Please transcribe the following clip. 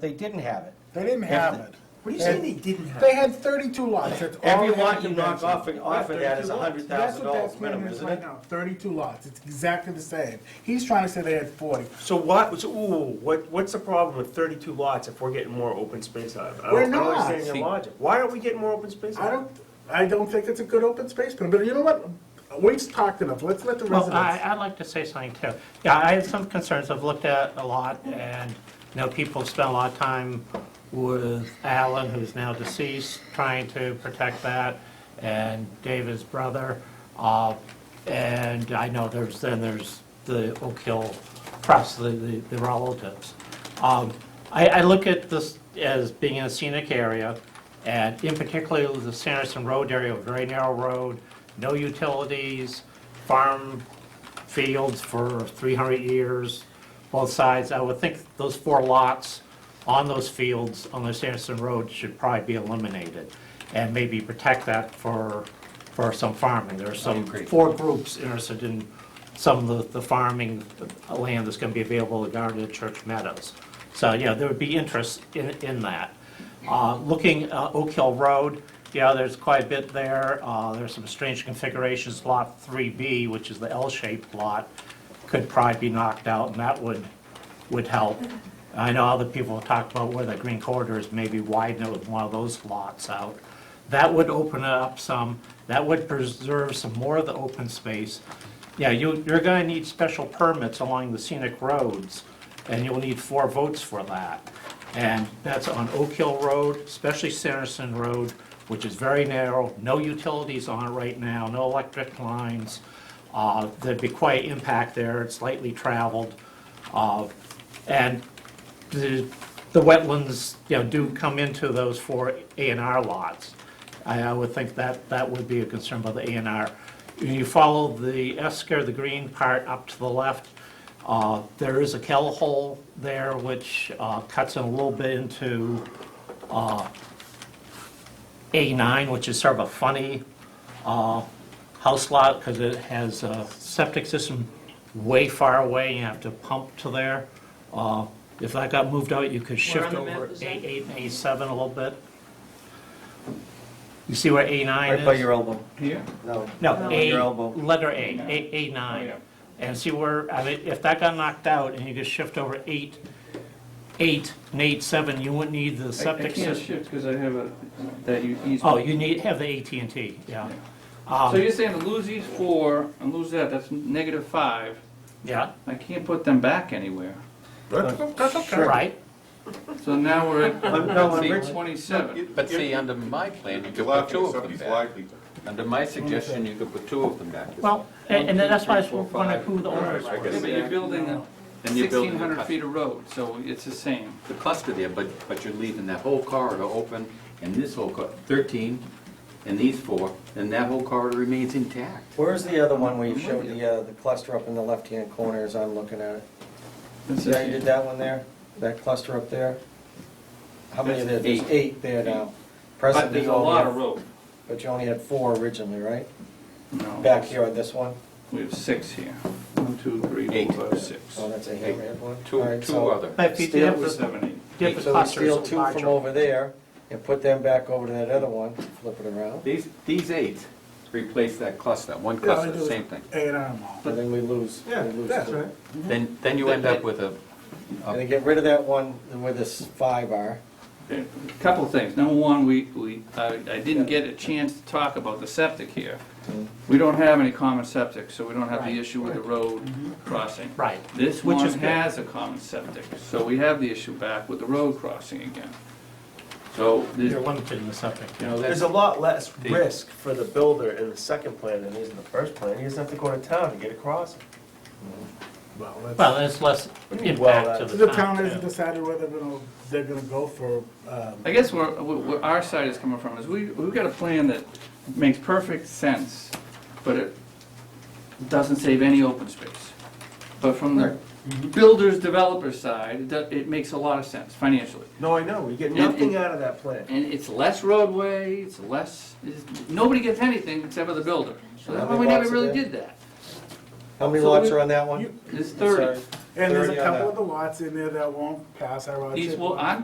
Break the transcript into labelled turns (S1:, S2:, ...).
S1: They didn't have it.
S2: They didn't have it.
S3: What do you say they didn't have?
S2: They had thirty-two lots, that's all.
S1: Every
S2: they had
S1: lot you
S2: to
S1: knock
S2: mention.
S1: off, off of that is a hundred
S2: That's
S1: thousand
S2: what that's
S1: dollars
S2: being
S1: minimum,
S2: is
S1: isn't
S2: right
S1: it?
S2: now, thirty-two lots, it's exactly the same. He's trying to say they had forty.
S3: So what, so, ooh, what, what's the problem with thirty-two lots if we're getting more open space out of it? I don't-
S2: We're
S3: I don't
S2: not.
S3: understand your logic. Why aren't we getting more open space
S2: I
S3: out of
S2: don't,
S3: it?
S2: I don't think it's a good open space plan, but you know what? We've talked enough, let's let the
S4: Well, I,
S2: residents.
S4: I'd like to say something too. Yeah, I have some concerns. I've looked at a lot and, you know, people spend a lot of time with Alan, who's now deceased, trying to protect that, and David's brother. Uh, And I know there's, then there's the Oak Hill Press, the, the the relatives. Um, I, I look at this as being a scenic area, and in particular, the Sanderson Road area, a very narrow road, no utilities, farm fields for 300 years, both sides. I would think those four lots on those fields on the Sanderson Road should probably be eliminated, and maybe protect that for, for some farming. There are some, four groups interested in some of the the farming land that's going to be available in Garden and Church Meadows. So, yeah, there would be interest in, in that. Uh, Looking at Oak Hill Road, yeah, there's quite a bit there. Uh, There's some strange configurations. Lot 3B, which is the L-shaped lot, could probably be knocked out, and that would, would help. I know other people have talked about where the green corridor is, maybe widen it with one of those lots out. That would open it up some, that would preserve some more of the open space. Yeah, you, you're gonna need special permits along the scenic roads, and you'll need four votes for that. And that's on Oak Hill Road, especially Sanderson Road, which is very narrow, no utilities on it right now, no electric lines. Uh, There'd be quite impact there, it's lightly traveled. Uh, And the, the wetlands, you know, do come into those four A and R lots. I, I would think that, that would be a concern by the A and R. You follow the Esker, the green part up to the left, uh, there is a kettle hole there which, uh, cuts in a little bit into, uh, A nine, which is sort of a funny, uh, house lot because it has a septic system way far away, you have to pump to there. Uh, If that got moved out, you could shift
S5: on the map
S4: over
S5: is that?
S4: A8 and A7 a little bit. You see where A9 is?
S1: Right by your elbow.
S6: Here?
S1: No.
S4: No,
S1: Under your
S4: A,
S1: elbow.
S4: letter A, A, A9. And see where, I mean, if that got knocked out and you could shift over 8, 8 and 8-7, you wouldn't need the
S6: I I
S4: septic
S6: can't
S4: system.
S6: shift because I have a, that e-, you ease.
S4: Oh, ah. you need, have the at and T. yeah.
S6: So you're saying to lose these four and lose that, that's negative five.
S4: Yeah,
S6: I can't put them back anywhere.
S2: That's that's okay.
S4: right?
S6: So now we're
S1: no, I'm
S6: at
S1: rich.
S6: twenty-seven.
S7: But see, under my plan, you
S8: You're
S7: could put
S8: laughing
S7: two
S8: at
S7: of them
S8: somebody's
S7: back.
S8: livelihood.
S7: Under my suggestion, you could put two of them back.
S4: Well, and and then that's why I was
S7: One, two, three, four,
S4: wondering
S7: five.
S4: who the owners
S7: All right, I
S4: were.
S6: Yeah, but you're building
S7: Then you're
S6: sixteen
S7: building the
S6: hundred feet
S7: cluster-
S6: of road, so it's the same.
S7: the cluster there, but, but you're leaving that whole corridor open, and this whole, cor- thirteen, and these four, and that whole corridor remains intact.
S1: Where's the other one where you showed the, uh, the cluster up in the left-hand corner as I'm looking at it?
S6: It's
S1: See
S6: the
S1: how you did
S6: same.
S1: that one there? That cluster up there? How many of there?
S6: That's
S1: There's
S6: eight.
S1: eight there now.
S6: But
S1: Presently,
S6: there's
S1: you
S6: a lot of
S1: only have-
S6: road.
S1: but you only had four originally, right?
S6: No,
S1: Back here on this one?
S6: We have six here. One, two, three,
S7: Eight.
S6: four, five, six.
S1: Oh, that's a hammerhead one? All
S7: Two,
S1: right,
S7: two
S1: so-
S7: other.
S4: But if you
S1: Still
S4: did
S6: That was
S4: the,
S6: seven, eight.
S4: did the
S1: So we steal
S4: clusters
S1: two from
S4: larger.
S1: over there and put them back over to that other one, flip it around,
S7: These, these eight replace that cluster, one
S2: Yeah, I
S7: cluster,
S2: do.
S7: same thing.
S2: Eight on them all.
S1: and then we lose. we
S3: Yeah,
S1: lose
S2: That's
S1: two.
S2: right.
S7: Then, then you end up with a,
S1: And then get rid of that one where this five are.
S6: A Couple things. Number one, we, we, I I didn't get a chance to talk about the septic here. We don't have any common septic, so we don't have
S4: Right.
S6: the
S4: Mm-hmm.
S6: issue with the road crossing.
S4: Right.
S6: This
S4: Which
S6: one
S4: is good.
S6: has a common septic, so we have the issue back with the road crossing again. So, there's-
S4: You're limited in the septic.
S6: you know,
S3: There's
S6: that's,
S3: a lot less risk for the builder in the second plan than there is in the first plan. He doesn't have to go to town to get across.
S2: Well,
S4: Well,
S2: that's-
S4: there's less
S3: Well,
S4: impact to
S3: that's-
S4: the
S2: The town hasn't
S4: town, too.
S2: decided whether they're gonna, they're gonna go for, um,
S6: I guess where, where our side is coming from is we, we've got a plan that makes perfect sense, but it doesn't save any open space. But from the builder's developer side, it, do- it makes a lot of sense financially.
S3: No, I know, we get
S6: And-
S3: nothing
S6: and-
S3: out of that plan.
S6: And it's less roadway, it's less, it's- nobody gets anything except for the builder. So that's why we never really did that.
S1: How many
S2: So
S1: lots
S2: we-
S1: are on that one?
S2: you-
S6: It's
S1: Sorry.
S6: thirty.
S2: and there's a
S1: 30 on that.
S2: couple of the lots in there that won't pass our.
S6: These, well,
S2: I.
S6: I'm